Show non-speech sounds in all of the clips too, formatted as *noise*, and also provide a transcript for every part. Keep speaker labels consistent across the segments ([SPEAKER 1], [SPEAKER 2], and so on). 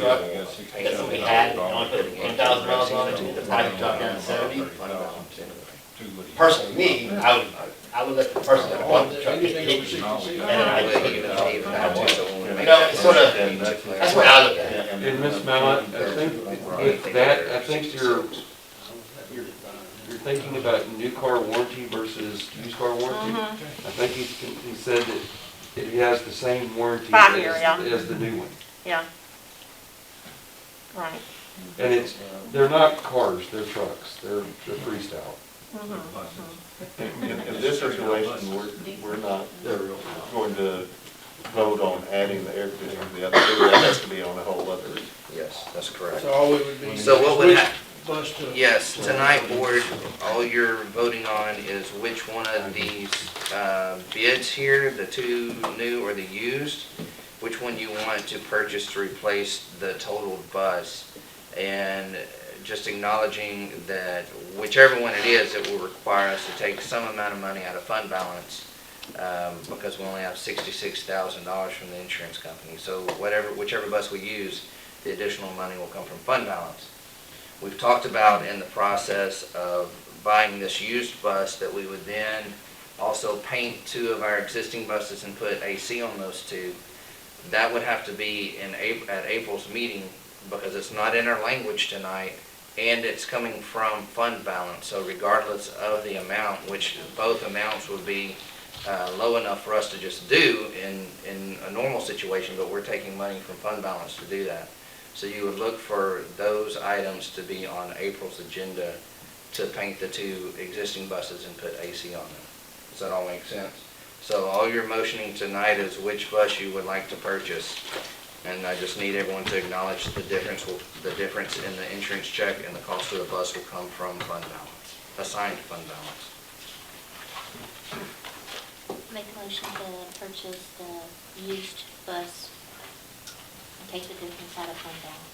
[SPEAKER 1] truck
[SPEAKER 2] that we had, only put ten thousand miles on it, the price dropped down to seventy. Personally, me, I would, I would let the person that bought the truck get it, and then I would take it out. You know, it's sort of, that's what I look at it.
[SPEAKER 3] And Ms. Mallett, I think with that, I think you're, you're you're thinking about new car warranty versus used car warranty.
[SPEAKER 4] Mm-hmm.
[SPEAKER 3] I think he, he said that it has the same warranty
[SPEAKER 4] Five year, yeah.
[SPEAKER 3] as, as the new one.
[SPEAKER 4] yeah. Right.
[SPEAKER 3] And it's, they're not cars, they're trucks, they're, they're freestyle.
[SPEAKER 4] Mhm.
[SPEAKER 5] In, in this situation, we're, we're not going to vote on adding the air conditioning to the other two, that has to be on a whole other.
[SPEAKER 6] Yes, that's correct.
[SPEAKER 7] So all we would be.
[SPEAKER 6] So what would
[SPEAKER 7] which
[SPEAKER 6] hap-
[SPEAKER 7] Bus to.
[SPEAKER 6] Yes, tonight, board, all you're voting on is which one of these uh, bids here, the two new or the used, which one you want to purchase to replace the totaled bus. And just acknowledging that whichever one it is, it will require us to take some amount of money out of fund balance um, because we only have sixty-six thousand dollars from the insurance company. So whatever, whichever bus we use, the additional money will come from fund balance. We've talked about in the process of buying this used bus that we would then also paint two of our existing buses and put AC on those two. That would have to be in April, at April's meeting because it's not in our language tonight and it's coming from fund balance. So regardless of the amount, which both amounts would be uh, low enough for us to just do in, in a normal situation, but we're taking money from fund balance to do that. So you would look for those items to be on April's agenda to paint the two existing buses and put AC on them. Does that all make sense? So all you're motioning tonight is which bus you would like to purchase. And I just need everyone to acknowledge the difference, will- the difference in the insurance check and the cost of the bus will come from fund balance, assigned fund balance.
[SPEAKER 8] Make a motion to purchase the used bus and take the difference out of fund balance.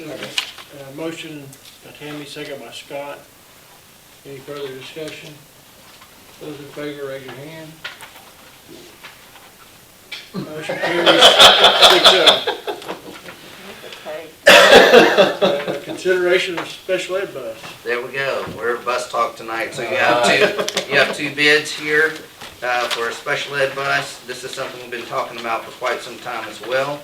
[SPEAKER 7] Uh, Motion by Tammy, second by Scott. Any further discussion? Those in favor, raise your hand. Motion carries six oh.
[SPEAKER 4] Okay.
[SPEAKER 7] Uh, Consideration of special ed bus.
[SPEAKER 6] There we go. We're at bus talk tonight, so you have two, you have two bids here uh, for a special ed bus. This is something we've been talking about for quite some time as well.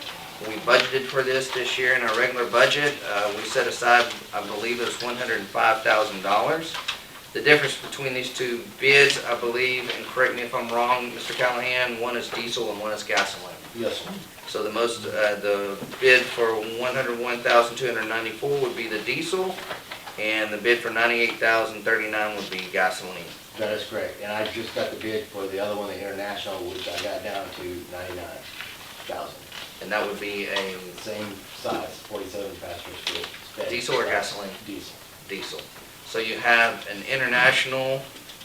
[SPEAKER 6] We budgeted for this this year in our regular budget. Uh, We set aside, I believe it was $105,000. The difference between these two bids, I believe, and correct me if I'm wrong, Mr. Callahan, one is diesel and one is gasoline.
[SPEAKER 2] Yes, sir.
[SPEAKER 6] So the most, uh, the bid for one hundred one thousand two hundred ninety-four would be the diesel, and the bid for ninety-eight thousand thirty-nine would be gasoline.
[SPEAKER 2] that is correct. And I just got the bid for the other one, the International, which I got down to ninety-nine thousand.
[SPEAKER 6] And that would be a
[SPEAKER 2] Same size, forty-seven passengers for.
[SPEAKER 6] Diesel or gasoline?
[SPEAKER 2] Diesel.
[SPEAKER 6] diesel. So you have an international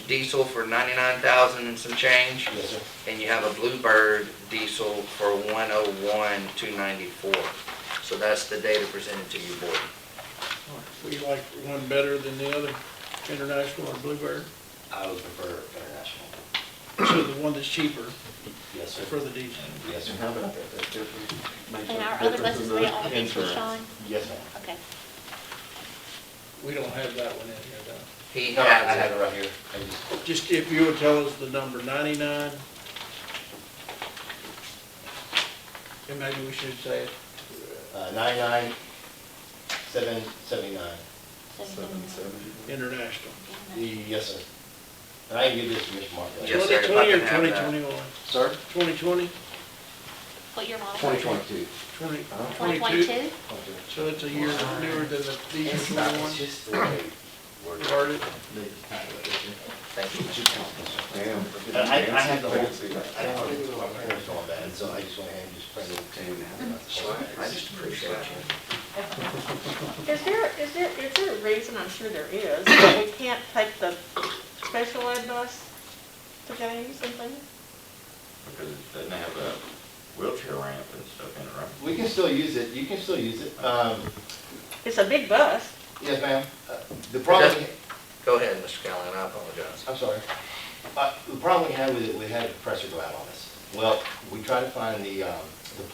[SPEAKER 6] diesel for ninety-nine thousand and some change,
[SPEAKER 2] Yes, sir.
[SPEAKER 6] and you have a Bluebird diesel for one oh one two ninety-four. So that's the data presented to you, board.
[SPEAKER 7] We like one better than the other, International or Bluebird.
[SPEAKER 2] I would prefer International.
[SPEAKER 7] So the one that's cheaper
[SPEAKER 2] Yes, sir.
[SPEAKER 7] for the diesel.
[SPEAKER 2] Yes, sir.
[SPEAKER 5] How about that, that difference makes
[SPEAKER 8] And
[SPEAKER 5] a
[SPEAKER 8] our other
[SPEAKER 5] difference
[SPEAKER 8] buses,
[SPEAKER 5] in
[SPEAKER 8] they
[SPEAKER 5] the
[SPEAKER 8] all pay for
[SPEAKER 5] insurance.
[SPEAKER 8] Sean?
[SPEAKER 2] Yes, ma'am.
[SPEAKER 8] Okay.
[SPEAKER 7] We don't have that one in here, though.
[SPEAKER 6] He
[SPEAKER 2] No, I have
[SPEAKER 6] has,
[SPEAKER 2] it right here. I just-
[SPEAKER 7] Just if you would tell us the number ninety-nine. And maybe we should say it.
[SPEAKER 2] Uh, ninety-nine, seven, seventy-nine.
[SPEAKER 8] Seventeen.
[SPEAKER 7] International.
[SPEAKER 2] Yes, sir. And I can give this to Mr. Mark. later.
[SPEAKER 6] Yes, sir, if I
[SPEAKER 7] 2020 or
[SPEAKER 6] can have that.
[SPEAKER 7] 2021?
[SPEAKER 2] Sir?
[SPEAKER 7] 2020?
[SPEAKER 8] What year model?
[SPEAKER 3] 2022.
[SPEAKER 7] 20
[SPEAKER 8] Twenty
[SPEAKER 7] 22?
[SPEAKER 8] twenty-two?
[SPEAKER 7] So it's a year newer than the
[SPEAKER 2] It's
[SPEAKER 7] diesel
[SPEAKER 2] not,
[SPEAKER 7] one?
[SPEAKER 2] it's just the way we're.
[SPEAKER 7] Started.
[SPEAKER 6] thank you.
[SPEAKER 2] And I, I have the whole, I don't want to do my parents all that, and so I just want to hand just print it to
[SPEAKER 6] I
[SPEAKER 2] you.
[SPEAKER 6] just appreciate you.
[SPEAKER 4] Is there, is there, is there a reason, I'm sure there is, *coughs* that we can't take the special ed bus to James and things?
[SPEAKER 9] Because it doesn't have a wheelchair ramp and stuff in it, right?
[SPEAKER 2] We can still use it, you can still use it. Um,
[SPEAKER 4] It's a big bus.
[SPEAKER 2] yes, ma'am. Uh, The problem,
[SPEAKER 6] Go ahead, Mr. Callahan, I apologize.
[SPEAKER 2] I'm sorry. Uh, the problem we had with it, we had a pressure go out on us. Well, we tried to find the, um,